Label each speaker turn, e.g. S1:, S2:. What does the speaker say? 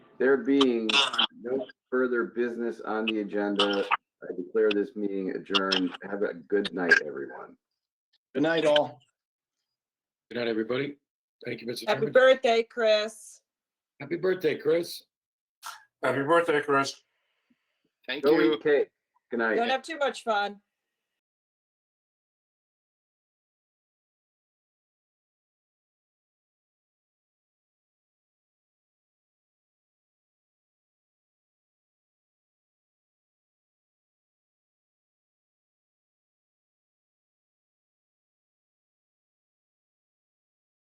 S1: There being no further business on the agenda, I declare this meeting adjourned. Have a good night, everyone.
S2: Good night, all.
S3: Good night, everybody. Thank you, Mr.
S4: Happy
S3: Chairman.
S4: birthday, Chris.
S3: Happy birthday, Chris.
S5: Happy birthday, Chris.
S6: Thank
S1: Go
S6: you.
S1: eat cake. Good night.
S4: Don't have too much fun.